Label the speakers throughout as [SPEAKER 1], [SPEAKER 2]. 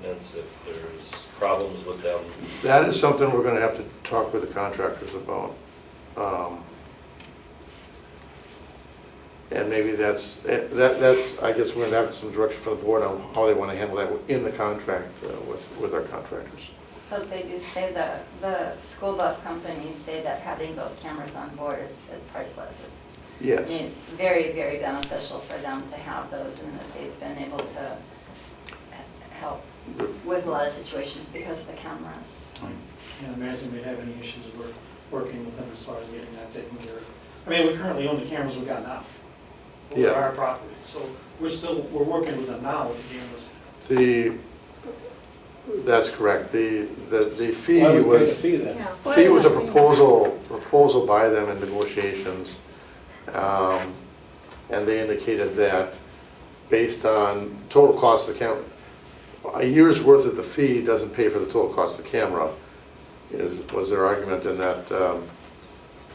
[SPEAKER 1] fence if there's problems with them.
[SPEAKER 2] That is something we're gonna have to talk with the contractors about. Um, And maybe that's, eh, that, that's, I guess we're gonna have some direction from the board on how they wanna handle that in the contract uh, with, with our contractors.
[SPEAKER 3] But they do say that, the school bus companies say that having those cameras on board is is priceless. It's, I
[SPEAKER 2] Yes.
[SPEAKER 3] mean, it's very, very beneficial for them to have those and that they've been able to he- help with a lot of situations because of the cameras.
[SPEAKER 4] Can't imagine we'd have any issues work- working with them as far as getting that taken care of. I mean, we currently own the cameras we got now. Those
[SPEAKER 2] Yeah.
[SPEAKER 4] are our property, so we're still, we're working with them now with the cameras.
[SPEAKER 2] The, that's correct. The, the the fee
[SPEAKER 5] Why would we pay a
[SPEAKER 2] was,
[SPEAKER 5] fee then?
[SPEAKER 2] fee was a proposal, proposal by them in negotiations. um, And they indicated that based on total cost of the camera, a year's worth of the fee doesn't pay for the total cost of the camera, is, was their argument in that um,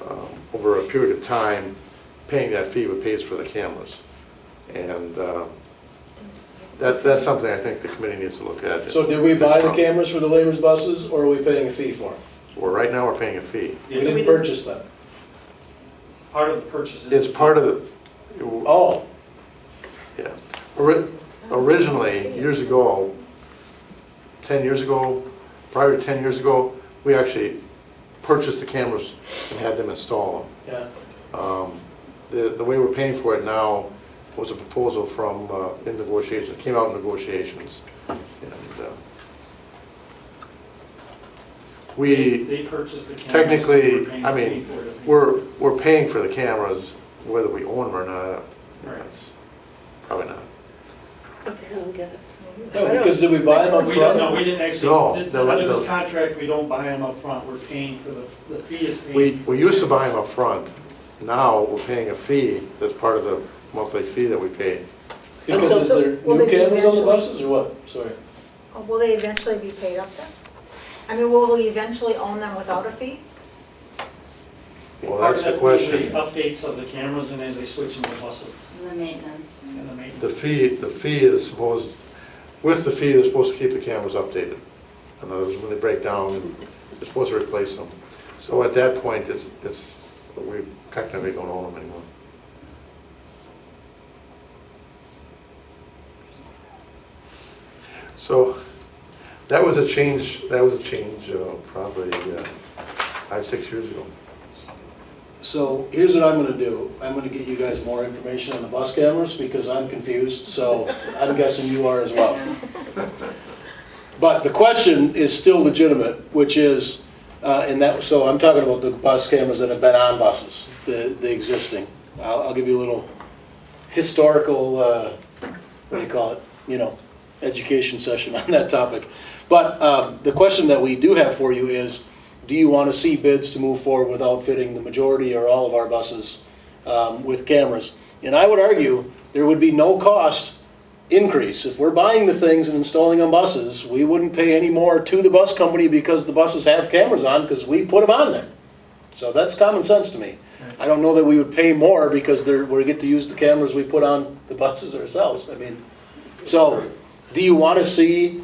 [SPEAKER 2] um, over a period of time, paying that fee would pays for the cameras. And uh, that, that's something I think the committee needs to look at.
[SPEAKER 5] So did we buy the cameras for the labor's buses, or are we paying a fee for them?
[SPEAKER 2] Well, right now, we're paying a fee.
[SPEAKER 5] We didn't purchase them.
[SPEAKER 4] Part of the purchase is.
[SPEAKER 2] It's part of the,
[SPEAKER 5] Oh,
[SPEAKER 2] Yeah. Ori- Originally, years ago, 10 years ago, prior to 10 years ago, we actually purchased the cameras and had them install
[SPEAKER 5] yeah.
[SPEAKER 2] them. Um, The the way we're paying for it now was a proposal from, uh, in negotiations, came out in negotiations. and uh,
[SPEAKER 4] They-
[SPEAKER 2] We,
[SPEAKER 4] They purchased the cameras. we're
[SPEAKER 2] technically,
[SPEAKER 4] paying
[SPEAKER 2] I
[SPEAKER 4] a fee
[SPEAKER 2] mean,
[SPEAKER 4] for it.
[SPEAKER 2] we're, we're paying for the cameras whether we own them or not.
[SPEAKER 4] Right.
[SPEAKER 2] That's Probably not.
[SPEAKER 6] Okay, I don't get it.
[SPEAKER 5] No, because did we buy them up
[SPEAKER 4] We don't, no,
[SPEAKER 5] front?
[SPEAKER 4] we didn't
[SPEAKER 2] No,
[SPEAKER 4] actually, th-
[SPEAKER 2] they're like
[SPEAKER 4] under this
[SPEAKER 2] the-
[SPEAKER 4] contract, we don't buy them up front. we're paying for the, the fee is paid.
[SPEAKER 2] We, we used to buy them upfront. Now, we're paying a fee that's part of the monthly fee that we pay.
[SPEAKER 5] Because is there
[SPEAKER 6] Will
[SPEAKER 5] new
[SPEAKER 6] they be
[SPEAKER 5] cameras on the
[SPEAKER 6] eventually-
[SPEAKER 5] buses, or what? Sorry.
[SPEAKER 7] Oh, Will they eventually be paid up then? I mean, will we eventually own them without a fee?
[SPEAKER 2] Well,
[SPEAKER 4] Part
[SPEAKER 2] that's the
[SPEAKER 4] of that would be
[SPEAKER 2] question.
[SPEAKER 4] Updates of the cameras and as they switch them to buses
[SPEAKER 3] And the maintenance.
[SPEAKER 4] and the maintenance.
[SPEAKER 2] The fee, the fee is supposed, with the fee, they're supposed to keep the cameras updated. In other words, when they break down, they're supposed to replace them. So at that point, it's, it's, we technically don't own them anymore. So that was a change, that was a change uh, probably uh, five, six years ago.
[SPEAKER 5] So here's what I'm gonna do. I'm gonna get you guys more information on the bus cameras, because I'm confused, so I'm guessing you are as well. But the question is still legitimate, which is, uh, and that, so I'm talking about the bus cameras that have been on buses, the, the existing. I'll, I'll give you a little historical, uh, what do you call it, you know, education session on that topic. But um, the question that we do have for you is, do you want to see bids to move forward with outfitting the majority or all of our buses um, with cameras? And I would argue, there would be no cost increase. If we're buying the things and installing on buses, we wouldn't pay any more to the bus company because the buses have cameras on, because we put them on there. So that's common sense to me. I don't know that we would pay more because they're, we get to use the cameras we put on the buses ourselves. I mean, so, do you want to see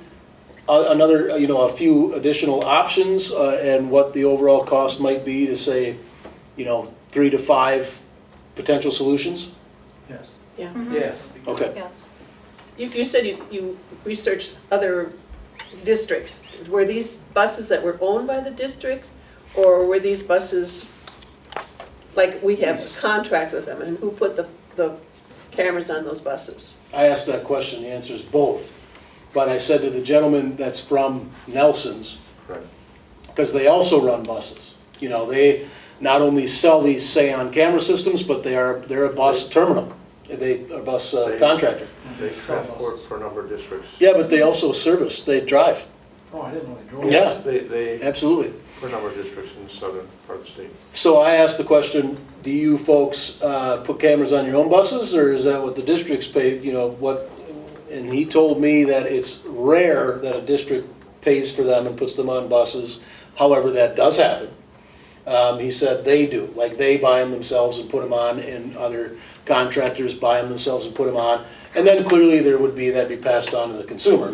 [SPEAKER 5] a- another, you know, a few additional options uh, and what the overall cost might be to say, you know, three to five potential solutions?
[SPEAKER 4] Yes.
[SPEAKER 6] Yeah.
[SPEAKER 4] Yes.
[SPEAKER 5] Okay.
[SPEAKER 7] Yes.
[SPEAKER 6] You, you said you, you researched other districts. Were these buses that were owned by the district? Or were these buses, like, we have a contract with them, and who put the, the cameras on those buses?
[SPEAKER 5] I asked that question, the answer is both. But I said to the gentleman that's from Nelson's,
[SPEAKER 2] Correct.
[SPEAKER 5] because they also run buses. You know, they not only sell these say on camera systems, but they are, they're a bus terminal. They, a bus uh, contractor.
[SPEAKER 2] They transport for a number of districts.
[SPEAKER 5] Yeah, but they also service, they drive,
[SPEAKER 4] Oh, I didn't know they drove.
[SPEAKER 5] Yeah.
[SPEAKER 2] They, they,
[SPEAKER 5] absolutely.
[SPEAKER 2] for a number of districts in southern part of the state.
[SPEAKER 5] So I asked the question, do you folks uh, put cameras on your own buses, or is that what the districts pay, you know, what? And he told me that it's rare that a district pays for them and puts them on buses. However, that does happen. Um, He said they do, like they buy them themselves and put them on, and other contractors buy them themselves and put them on. And then clearly there would be, that'd be passed on to the consumer,